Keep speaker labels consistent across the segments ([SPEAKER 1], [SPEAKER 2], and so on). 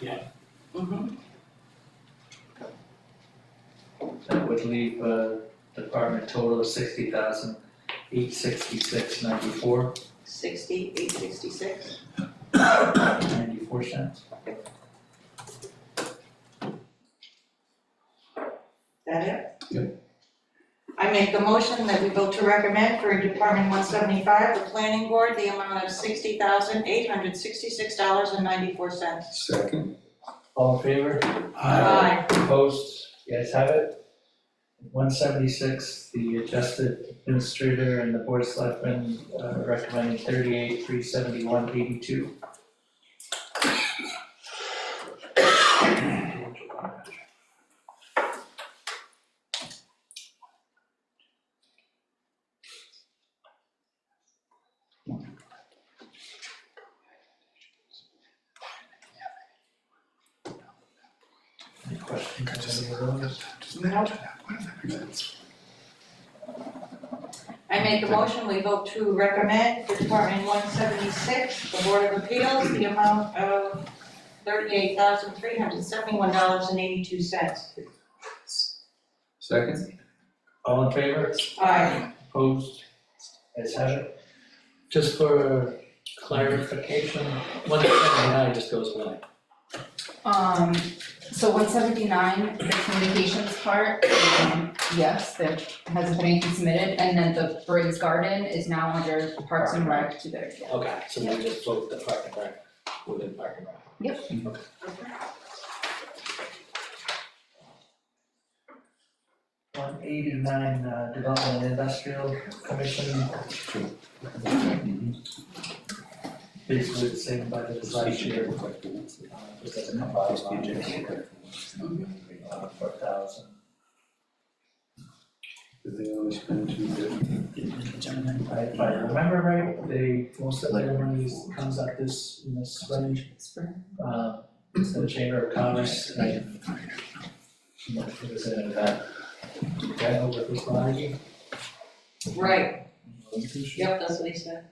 [SPEAKER 1] Yeah.
[SPEAKER 2] Mhm.
[SPEAKER 3] That would leave a department total of sixty thousand eight sixty-six ninety-four,
[SPEAKER 2] Sixty, eight sixty-six,
[SPEAKER 3] ninety-four cents.
[SPEAKER 2] that it? I make a motion that we vote to recommend for Department one seventy-five, the planning board, the amount of sixty thousand, eight hundred sixty-six dollars and ninety-four cents.
[SPEAKER 4] Second.
[SPEAKER 3] All in favor?
[SPEAKER 2] Aye.
[SPEAKER 3] Opposed, you guys have it? One seventy-six, the adjusted administrator and the board of selectmen uh, recommending thirty-eight, three seventy-one, eighty-two. Any questions? on any of those?
[SPEAKER 2] I make a motion, we vote to recommend for Department one seventy-six, the Board of Appeals, the amount of thirty-eight thousand, three hundred seventy-one dollars and eighty-two cents.
[SPEAKER 4] Second.
[SPEAKER 3] All in favor?
[SPEAKER 2] Aye.
[SPEAKER 3] Opposed? As have it. Just for clarification, one seventy-nine just goes away.
[SPEAKER 5] Um, so one seventy-nine, the communications part, um, yes, there hasn't been anything submitted, and then the Briggs Garden is now under Parks and Rec to their, yeah.
[SPEAKER 3] Okay, so we just vote the park and rec within park and rec. One eighty-nine, uh, Development and Industrial Commission. Basically the same budget as last year. Uh, Just doesn't have bylaws. Uh, Four thousand.
[SPEAKER 4] Did they only spend two fifty?
[SPEAKER 3] If I remember right, they, most of their money is- comes out this, in this range, uh, it's the Chamber of Commerce, and I. I'm not sure if there's any of uh, that. Okay, I'll work with Bonnie.
[SPEAKER 2] Right, yep, that's what he said.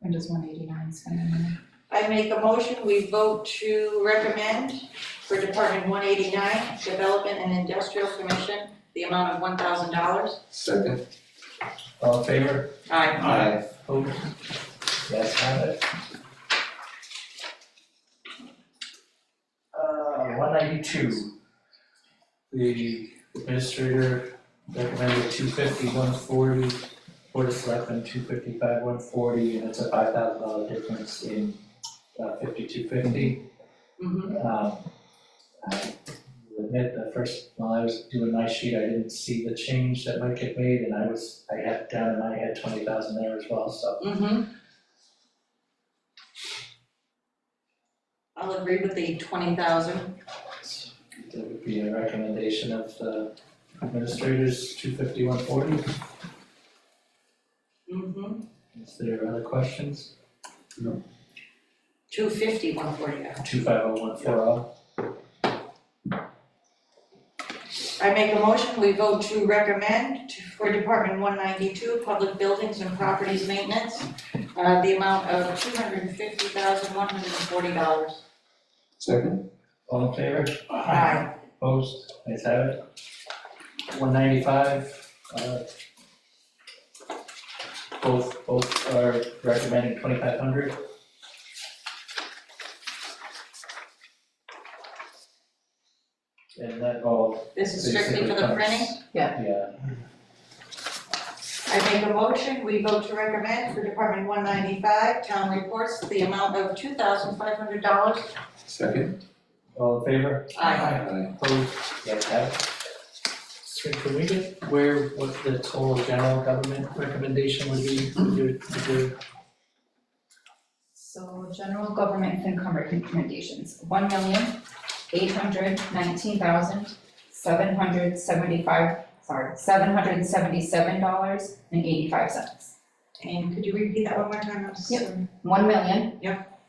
[SPEAKER 5] When does one eighty-nine spend in there?
[SPEAKER 2] I make a motion, we vote to recommend for Department one eighty-nine, Development and Industrial Commission, the amount of one thousand dollars.
[SPEAKER 4] Second.
[SPEAKER 3] All in favor?
[SPEAKER 2] Aye.
[SPEAKER 4] Aye.
[SPEAKER 3] Opposed? Yes, have it. Uh, one ninety-two. The administrator recommended two fifty, one forty, Board of Selectmen, two fifty-five, one forty, and it's a five thousand dollar difference in uh, fifty-two fifty.
[SPEAKER 2] Mm-hmm.
[SPEAKER 3] Um, I will admit, the first, while I was doing my sheet, I didn't see the change that might get made, and I was, I had down in my head twenty thousand there as well, so
[SPEAKER 2] Mm-hmm. I'll agree with the twenty thousand.
[SPEAKER 3] That would be a recommendation of the administrators, two fifty-one forty.
[SPEAKER 2] Mm-hmm.
[SPEAKER 3] Is there other questions?
[SPEAKER 2] Two fifty, one forty.
[SPEAKER 3] Two five oh one four oh.
[SPEAKER 2] I make a motion, we vote to recommend to- for Department one ninety-two, Public Buildings and Properties Maintenance, uh, the amount of two hundred and fifty thousand, one hundred and forty dollars.
[SPEAKER 4] Second.
[SPEAKER 3] All in favor?
[SPEAKER 2] Aye.
[SPEAKER 3] Opposed? Ayes have it. One ninety-five, uh. Both, both are recommending twenty-five hundred. And that, oh,
[SPEAKER 2] This is strictly for the
[SPEAKER 3] Basically,
[SPEAKER 2] printing.
[SPEAKER 3] yeah,
[SPEAKER 2] I make a motion, we vote to recommend for Department one ninety-five, town reports, the amount of two thousand five hundred dollars.
[SPEAKER 4] Second.
[SPEAKER 3] all in favor?
[SPEAKER 2] Aye.
[SPEAKER 4] Aye.
[SPEAKER 3] Opposed, yes, have it. So can we get where, what the total general government recommendation would be, would you, would you,
[SPEAKER 5] So general government FinCom recommendations, one million, eight hundred nineteen thousand, seven hundred seventy-five, sorry, seven hundred seventy-seven dollars and eighty-five cents.
[SPEAKER 2] And could you repeat that one more time? I'm
[SPEAKER 5] Yep.
[SPEAKER 2] sorry.
[SPEAKER 5] One million.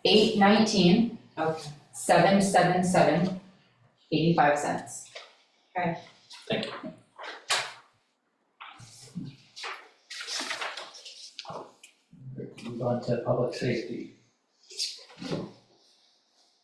[SPEAKER 5] Eight nineteen,
[SPEAKER 2] Okay.
[SPEAKER 5] seven seven seven eighty-five cents.
[SPEAKER 3] move on to public safety?